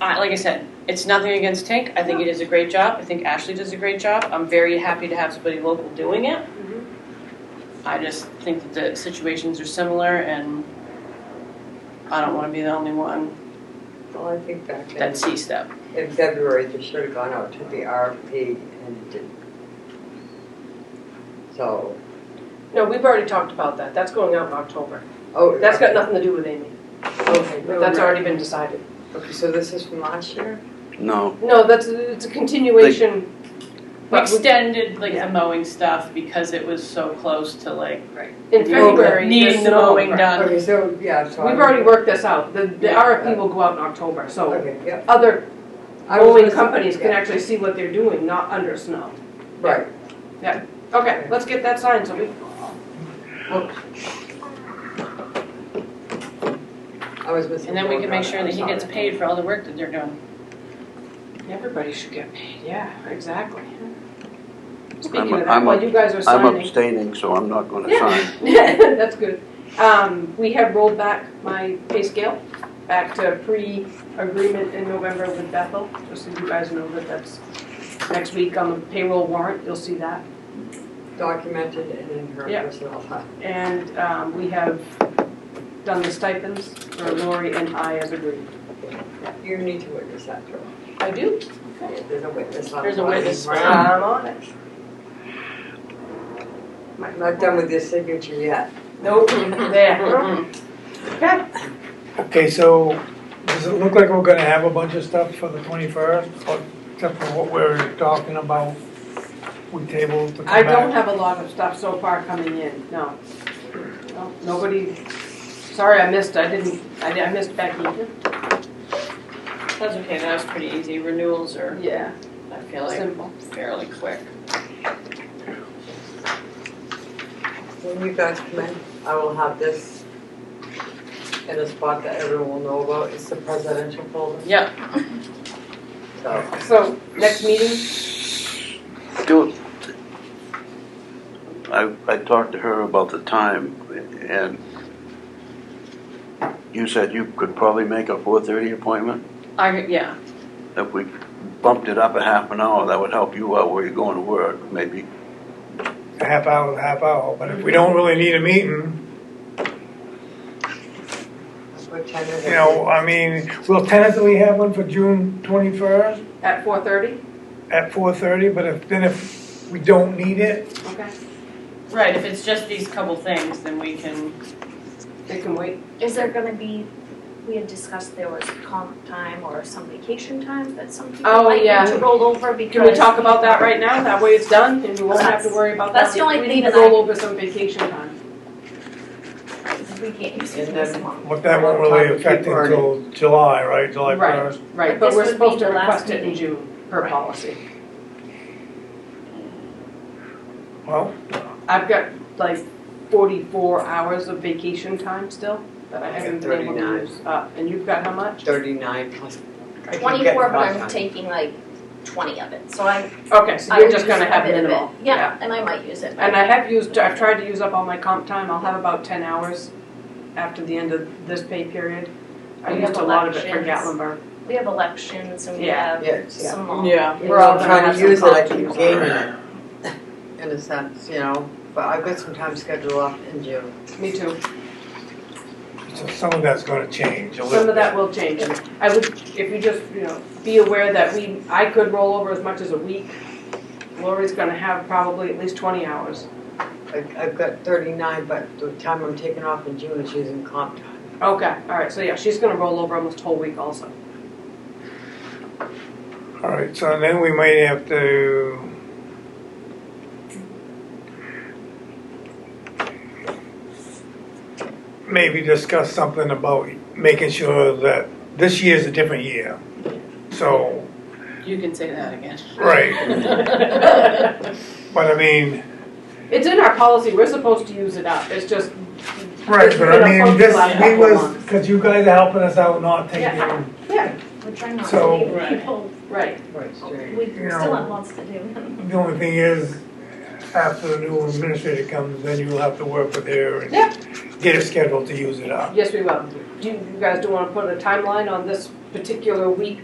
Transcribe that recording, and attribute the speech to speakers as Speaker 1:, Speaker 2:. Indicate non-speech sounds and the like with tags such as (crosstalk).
Speaker 1: I, like I said, it's nothing against Tank. I think he does a great job. I think Ashley does a great job. I'm very happy to have somebody local doing it.
Speaker 2: Mm-hmm.
Speaker 1: I just think that the situations are similar, and I don't want to be the only one
Speaker 3: Well, I think back in,
Speaker 1: that sees that.
Speaker 3: in February, they should have gone out to the RFP and it didn't. So,
Speaker 2: No, we've already talked about that. That's going out in October.
Speaker 3: oh.
Speaker 2: That's got nothing to do with Amy.
Speaker 3: Okay, no,
Speaker 2: That's
Speaker 3: no.
Speaker 2: already been decided.
Speaker 3: Okay, so this is from last year?
Speaker 4: No,
Speaker 2: No, that's, it's a continuation.
Speaker 1: We
Speaker 2: But we-
Speaker 1: extended like
Speaker 2: Yeah.
Speaker 1: the mowing stuff because it was so close to like
Speaker 2: in February.
Speaker 1: needing the
Speaker 2: there's no-
Speaker 1: mowing done.
Speaker 3: Okay, so, yeah, so. I-
Speaker 2: We've already worked this out. The, the
Speaker 3: Yeah.
Speaker 2: RFP will go out in October, so
Speaker 3: Okay, yeah.
Speaker 2: other
Speaker 3: I was
Speaker 2: mowing
Speaker 3: listening,
Speaker 2: companies can
Speaker 3: yeah,
Speaker 2: actually see what they're doing, not under snow.
Speaker 3: Right,
Speaker 2: Okay, let's get that signed so we,
Speaker 3: I was missing.
Speaker 1: And then we can make sure that he gets paid for all the work that they're doing.
Speaker 2: everybody should get paid. Yeah, exactly.
Speaker 4: I'm-
Speaker 2: Speaking of that,
Speaker 4: I'm
Speaker 2: while
Speaker 4: up-
Speaker 2: you guys are
Speaker 4: I'm
Speaker 2: signing.
Speaker 4: abstaining, so I'm not going to
Speaker 2: Yeah. (laughs)
Speaker 4: sign.
Speaker 2: That's good. Um, we have rolled back my pay scale back to pre-agreement in November with Bethel, just so you guys know that that's next week on the payroll warrant, you'll see that.
Speaker 3: Documented and in her
Speaker 2: Yeah.
Speaker 3: personnel file.
Speaker 2: And, um, we have done the stipends for Lori and I as agreed.
Speaker 3: You need to witness that, Joe.
Speaker 2: I do.
Speaker 3: There's a witness on.
Speaker 1: There's a
Speaker 3: the line.
Speaker 1: witness.
Speaker 2: I'm on it.
Speaker 3: I'm Not done with your signature yet.
Speaker 2: Nope, there.
Speaker 1: Mm-hmm.
Speaker 2: Okay,
Speaker 5: Okay, so does it look like we're gonna have a bunch of stuff for the twenty-first, except for what we're talking about? We tabled to come
Speaker 2: I don't
Speaker 5: back.
Speaker 2: have a lot of stuff so far coming in, no. No, Nobody, sorry, I missed, I didn't, I I missed Becky.
Speaker 1: That's okay, that was pretty easy. Renewals are,
Speaker 2: Yeah,
Speaker 1: I feel like,
Speaker 2: simple.
Speaker 1: fairly quick.
Speaker 3: When you guys come in, I will have this in a spot that everyone will know about. It's the presidential folder,
Speaker 1: Yep,
Speaker 3: so.
Speaker 2: So, next meeting,
Speaker 4: Do, I, I talked to her about the time, and you said you could probably make a four-thirty appointment.
Speaker 1: I, yeah,
Speaker 4: If we bumped it up a half an hour, that would help you out where you're going to work, maybe.
Speaker 5: A half hour, a half hour, but if we don't really need a meeting,
Speaker 3: What time is it?
Speaker 5: you know, I mean, we'll tentatively have one for June twenty-first
Speaker 2: at four thirty,
Speaker 5: at four-thirty, but if, then if we don't need it,
Speaker 2: okay,
Speaker 1: right, if it's just these couple things, then we can,
Speaker 2: they can wait.
Speaker 6: Is there gonna be, we had discussed there was comp time or some vacation time that some
Speaker 2: Oh,
Speaker 6: people might
Speaker 2: yeah.
Speaker 6: need to roll over because.
Speaker 2: Can we talk about that right now, that way it's done, and we won't have to worry about that.
Speaker 6: That's the only
Speaker 2: We
Speaker 6: thing
Speaker 2: need to
Speaker 6: that I-
Speaker 2: roll over some vacation time.
Speaker 6: We can't use it
Speaker 3: And
Speaker 6: this
Speaker 3: then-
Speaker 6: long.
Speaker 5: but that won't really affect
Speaker 3: People are-
Speaker 5: until July, right, July
Speaker 2: Right.
Speaker 5: first?
Speaker 2: Right,
Speaker 6: But
Speaker 2: but
Speaker 6: this
Speaker 2: we're
Speaker 6: would be
Speaker 2: supposed to
Speaker 6: the last
Speaker 2: request it in
Speaker 6: meeting.
Speaker 2: June, per
Speaker 6: Right.
Speaker 2: policy.
Speaker 5: Well,
Speaker 2: I've got like forty-four hours of vacation time still, that I
Speaker 3: I've got
Speaker 2: haven't been able to
Speaker 3: 39.
Speaker 2: use up, and you've got how much?
Speaker 3: Thirty-nine plus. I keep getting
Speaker 6: Twenty-four, but
Speaker 3: caught
Speaker 6: I'm
Speaker 3: on.
Speaker 6: taking like twenty of it, so I,
Speaker 2: Okay, so
Speaker 6: I
Speaker 2: you're
Speaker 6: would
Speaker 2: just
Speaker 6: use
Speaker 2: gonna
Speaker 6: a
Speaker 2: have
Speaker 6: bit of it.
Speaker 2: minimal,
Speaker 6: Yeah, and I might use it.
Speaker 2: And I have used, I've tried to use up all my comp time, I'll have about ten hours after the end of this pay period. I
Speaker 6: We
Speaker 2: used
Speaker 6: have
Speaker 2: a lot of it for
Speaker 6: elections.
Speaker 2: Gatlinburg.
Speaker 6: We have elections and we
Speaker 2: Yeah.
Speaker 6: have
Speaker 3: Yes, yeah.
Speaker 6: some long.
Speaker 1: yeah.
Speaker 2: We're all gonna
Speaker 3: trying
Speaker 2: have
Speaker 3: to
Speaker 2: some
Speaker 3: use it, I
Speaker 2: comp
Speaker 3: keep
Speaker 2: time.
Speaker 3: gaining it. In a sense, you know, but I've got some time scheduled off in June.
Speaker 2: Me too.
Speaker 5: so some of that's gonna change a little
Speaker 2: Some of
Speaker 5: bit.
Speaker 2: that will change. I would, if you just, you know, be aware that we, I could roll over as much as a week. Lori's gonna have probably at least twenty hours.
Speaker 3: I've, I've got thirty-nine, but the time I'm taking off in June is using comp time.
Speaker 2: Okay, all right, so yeah, she's gonna roll over almost a whole week
Speaker 6: (laughs)
Speaker 2: also.
Speaker 5: All right, so then we might have to. Maybe discuss something about making sure that this year's a different year. So,
Speaker 1: You can say that again.
Speaker 5: right, but I mean,
Speaker 2: It's in our policy, we're supposed to use it up, it's just.
Speaker 5: right, but I mean, this, we was,
Speaker 2: Yeah.
Speaker 5: cause you guys are helping us out not taking.
Speaker 2: Yeah,
Speaker 6: We're trying not
Speaker 5: So-
Speaker 6: to leave
Speaker 1: Right.
Speaker 6: people,
Speaker 2: right,
Speaker 3: Right, straight.
Speaker 6: we
Speaker 5: You
Speaker 6: still
Speaker 5: know.
Speaker 6: have lots to do. (laughs)
Speaker 5: The only thing is, after the new administrator comes, then you'll have to work with her and
Speaker 2: Yeah.
Speaker 5: get her scheduled to use it up.
Speaker 2: yes, we will. Do you you guys do wanna put a timeline on this particular week